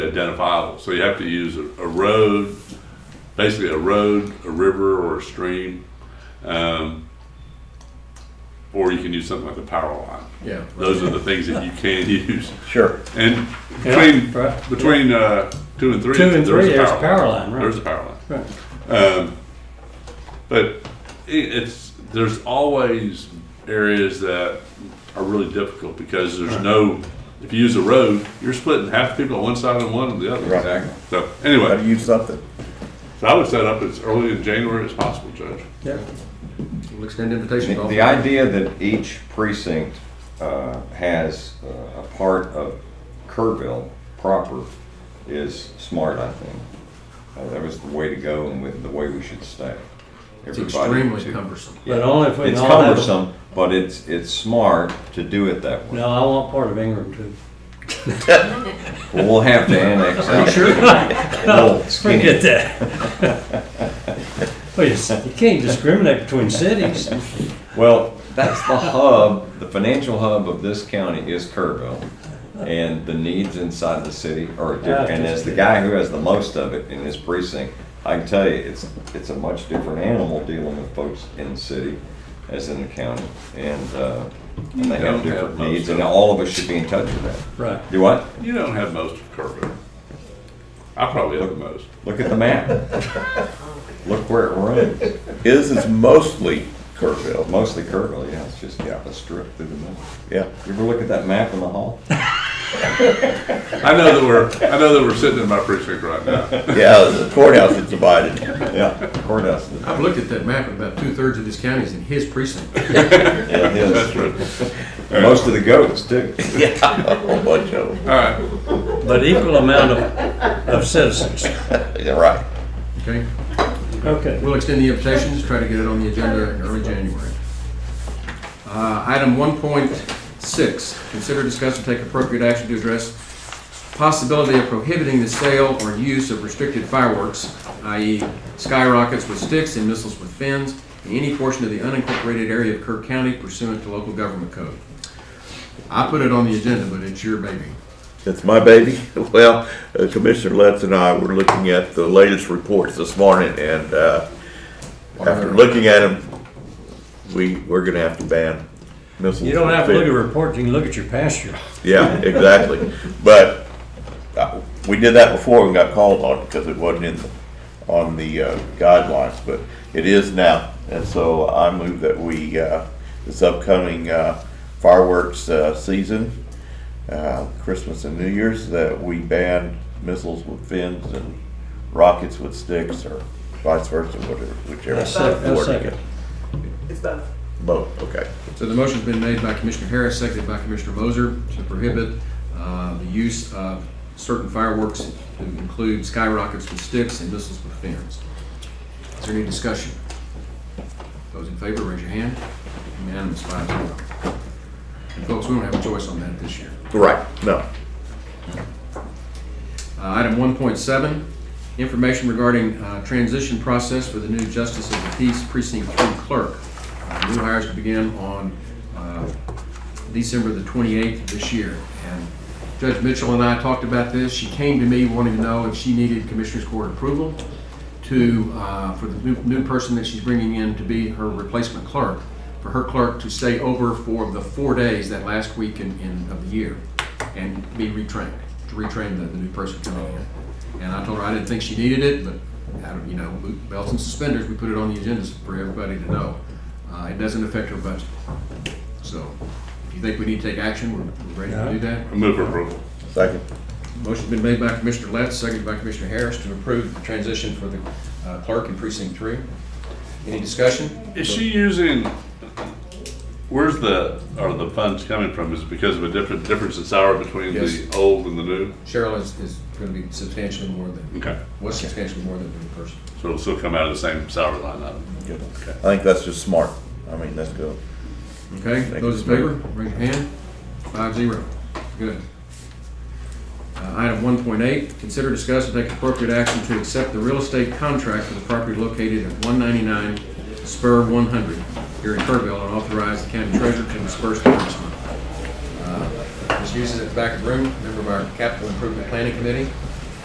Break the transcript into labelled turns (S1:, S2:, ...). S1: identifiable. So you have to use a, a road, basically a road, a river, or a stream. Um, or you can use something like a power line.
S2: Yeah.
S1: Those are the things that you can use.
S3: Sure.
S1: And
S4: Yeah,
S1: between
S4: right.
S1: between uh, two and three,
S4: Two and three, there's a power line,
S1: There's a
S4: right.
S1: power line.
S4: Right.
S1: Um, but it, it's there's always areas that are really difficult because there's no. If you use a road, you're splitting half the people on one side and one on the other.
S3: Right.
S2: Exactly.
S1: So
S3: Gotta
S1: anyway,
S3: use something.
S1: so I would set up as early in January as possible, Judge.
S4: Yeah.
S2: We'll extend invitations.
S5: The
S2: all-
S5: the idea that each precinct uh, has uh, a part of Kerrville proper is smart, I think. Uh, That was the way to go and with the way we should stay.
S2: It's
S5: Everybody
S2: extremely
S5: to-
S2: cumbersome.
S5: Yeah.
S4: But only if we
S5: It's
S4: can all have a-
S5: cumbersome, but it's, it's smart to do it that way.
S4: No, I want part of Ingram too.
S5: Well, We'll have to annex out. Little skinny-
S4: Forget that. Well, you s- you can't discriminate between cities.
S5: Well, that's the hub, the financial hub of this county is Kerrville. And the needs inside the city are, di-
S4: Yeah,
S5: and as the guy who has the most of it in his precinct, I can tell you, it's, it's a much different animal dealing with folks in the city as in the county. And, uh, and they
S1: don't have
S5: have different
S1: most
S5: needs,
S1: of
S5: and
S1: it.
S5: all of us should be in touch with that.
S4: Right.
S5: You what?
S1: You don't have most of Kerrville. I probably have the most.
S5: Look at the map. Look where it runs.
S3: His is mostly Kerrville.
S5: Mostly Kerrville, yeah, it's just
S3: Yeah.
S5: a strip through the middle.
S3: Yeah.
S5: You ever look at that map in the hall?
S1: I know that we're I know that we're sitting in my precinct right now.
S3: Yeah, the courthouse is divided.
S5: Yeah, courthouse.
S2: I've looked at that map, and about two-thirds of this county is in his precinct.
S5: Yeah,
S1: That's
S5: his.
S1: true.
S5: Most of the goats too.
S3: Yeah, a whole bunch of them.
S1: All right.
S4: But equal amount of, of citizens.
S3: Yeah, right.
S2: Okay?
S4: Okay.
S2: We'll extend the invitations, try to get it on the agenda in early January. Uh, Item 1.6, consider, discuss, and take appropriate action to address possibility of prohibiting the sale or use of restricted fireworks, i.e. skyrockets with sticks and missiles with fins, in any portion of the unincorporated area of Kirk County pursuant to local government code. I put it on the agenda, but it's your baby.
S3: It's my baby. Well, uh, Commissioner Letts and I were looking at the latest reports this morning, and uh, after looking at them, we, we're gonna have to ban missiles.
S4: You don't have to look at reports, you can look at your pasture.
S3: Yeah, exactly. But uh, we did that before and got called on because it wasn't in, the- on the uh, guidelines, but it is now. And so I move that we, uh, this upcoming uh, fireworks uh, season, uh, Christmas and New Year's, that we ban missiles with fins and rockets with sticks or vice versa, whatever, whichever.
S4: I sec- I
S3: word you
S4: second.
S6: It's both.
S3: get. Both, okay.
S2: So the motion's been made by Commissioner Harris, seconded by Commissioner Moser to prohibit uh, the use of certain fireworks to include skyrockets with sticks and missiles with fins. Is there any discussion? Those in favor, raise your hand. Unanimous, five zero. And folks, we don't have a choice on that this year.
S3: Right, no.
S2: Uh, Item 1.7, information regarding uh, transition process for the new Justice of the Peace Precinct 3 clerk. Uh, New hires to begin on uh, December the 28th of this year. And Judge Mitchell and I talked about this. She came to me wanting to know if she needed Commissioners Court approval to, uh, for the new- new person that she's bringing in to be her replacement clerk, for her clerk to stay over for the four days that last week in- in, of the year and be retrained, to retrain the, the new person coming in. And I told her I didn't think she needed it, but, I don't- you know, belts and suspenders, we put it on the agenda for everybody to know. Uh, It doesn't affect her budget. So if you think we need to take action, we're we're ready to do that.
S1: I move for approval.
S3: Second.
S2: Motion's been made by Commissioner Letts, seconded by Commissioner Harris to approve the transition for the uh, clerk in precinct three. Any discussion?
S1: Is she using, where's the, are the funds coming from? Is it because of a different, difference in salary between the
S2: Yes.
S1: old and the new?
S2: Cheryl is, is gonna be substantially more than,
S1: Okay,
S2: was substantially more than the new person.
S1: so it'll still come out of the same salary line item?
S3: Good.
S1: Okay.
S3: I think that's just smart. I mean, that's good.
S2: Okay,
S3: Thank
S2: those in
S3: you.
S2: favor, raise your hand. Five zero. Good. Uh, Item one point eight, consider discuss and take appropriate action to accept the real estate contract for the property located at one ninety-nine Spur one hundred here in Kerrville and authorize the county treasurer to disperse the funds. Uh, This use is at the back of the room, member of our capital improvement planning committee.